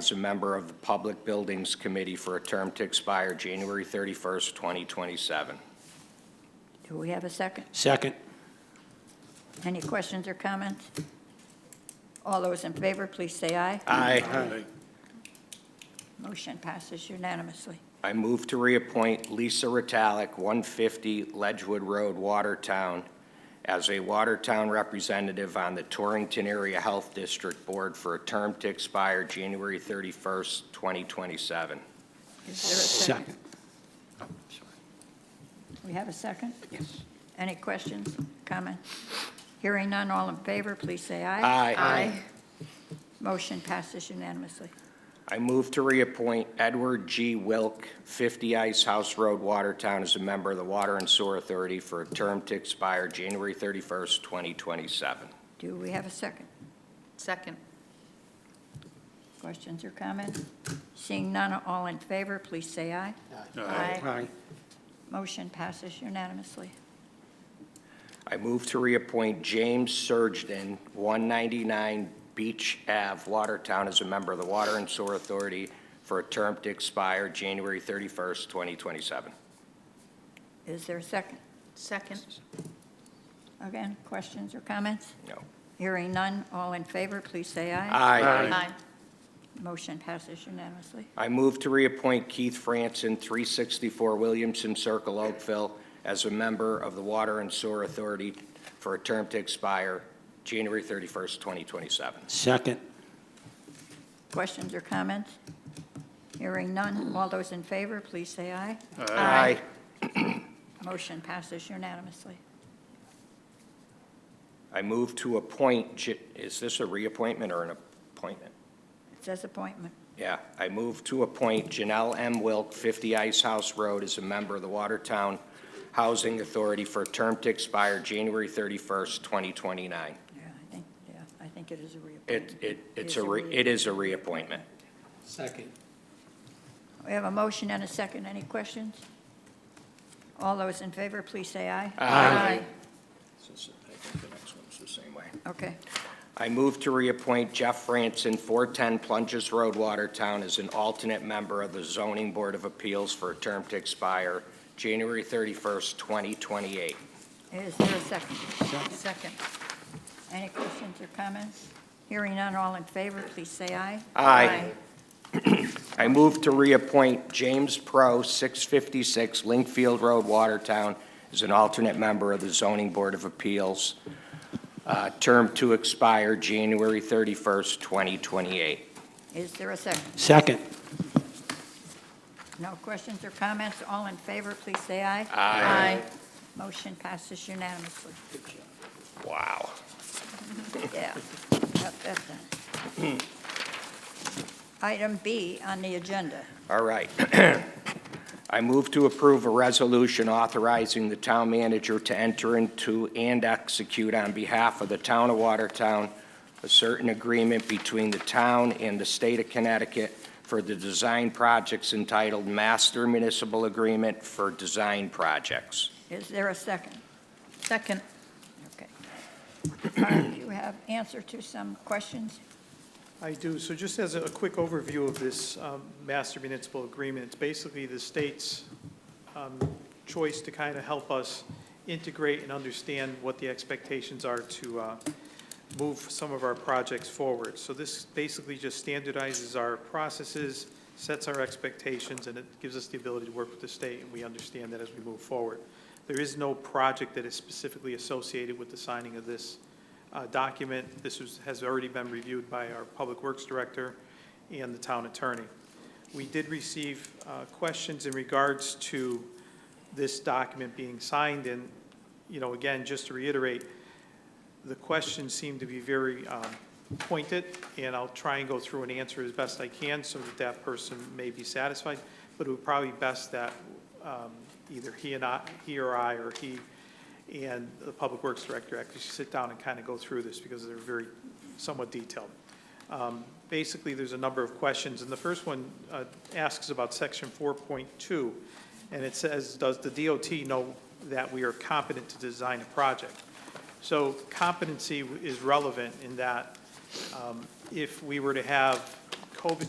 as a member of the Public Buildings Committee for a term to expire January 31st, 2027. Do we have a second? Second. Any questions or comments? All those in favor, please say aye. Aye. Motion passes unanimously. I move to reappoint Lisa Ritalik, 150 Ledgewood Road, Watertown, as a Watertown representative on the Torrington Area Health District Board for a term to expire January 31st, 2027. Is there a second? We have a second? Yes. Any questions, comments? Hearing none, all in favor, please say aye. Aye. Motion passes unanimously. I move to reappoint Edward G. Wilk, 50 Ice House Road, Watertown, as a member of the Water and Sewer Authority for a term to expire January 31st, 2027. Do we have a second? Second. Questions or comments? Seeing none, all in favor, please say aye. Aye. Motion passes unanimously. I move to reappoint James Surgden, 199 Beach Ave, Watertown, as a member of the Water and Sewer Authority for a term to expire January 31st, 2027. Is there a second? Second. Again, questions or comments? No. Hearing none, all in favor, please say aye. Aye. Aye. Motion passes unanimously. I move to reappoint Keith Franson, 364 Williamson Circle, Oakville, as a member of the Water and Sewer Authority for a term to expire January 31st, 2027. Second. Questions or comments? Hearing none, all those in favor, please say aye. Aye. Motion passes unanimously. I move to appoint, J- is this a reappointment or an appointment? It says appointment. Yeah, I move to appoint Janelle M. Wilk, 50 Ice House Road, as a member of the Watertown Housing Authority for a term to expire January 31st, 2029. Yeah, I think, yeah, I think it is a reappointment. It, it, it's is a, a re- it is a reappointment. Second. We have a motion and a second. Any questions? All those in favor, please say aye. Aye. I think the next one's the same way. Okay. I move to reappoint Jeff Franson, 410 Plunges Road, Watertown, as an alternate member of the Zoning Board of Appeals for a term to expire January 31st, 2028. Is there a second? Second. Any questions or comments? Hearing none, all in favor, please say aye. Aye. I move to reappoint James Pro, 656 Linkfield Road, Watertown, as an alternate member of the Zoning Board of Appeals, uh, term to expire January 31st, 2028. Is there a second? Second. No questions or comments? All in favor, please say aye. Aye. Motion passes unanimously. Wow. Yeah, got that done. Item B on the agenda. All right. I move to approve a resolution authorizing the town manager to enter into and execute on behalf of the town of Watertown a certain agreement between the town and the state of Connecticut for the design projects entitled Master Municipal Agreement for Design Projects. Is there a second? Second. Okay. Mark, you have answer to some questions? I do. So just as a quick overview of this um, master municipal agreement, it's basically the state's um, choice to kind of help us integrate and understand what the expectations are to uh, move some of our projects forward. So this basically just standardizes our processes, sets our expectations, and it gives us the ability to work with the state, and we understand that as we move forward. There is no project that is specifically associated with the signing of this uh, document. This was, has already been reviewed by our Public Works Director and the town attorney. We did receive uh, questions in regards to this document being signed, and, you know, again, just to reiterate, the questions seem to be very um, pointed, and I'll try and go through and answer as best I can so that that person may be satisfied, but it would probably be best that um, either he and I, he or I, or he and the Public Works Director actually sit down and kind of go through this because they're very somewhat detailed. Um, Basically, there's a number of questions, and the first one uh, asks about section 4.2, and it says, does the DOT know that we are competent to design a project? So competency is relevant in that um, if we were to have COVID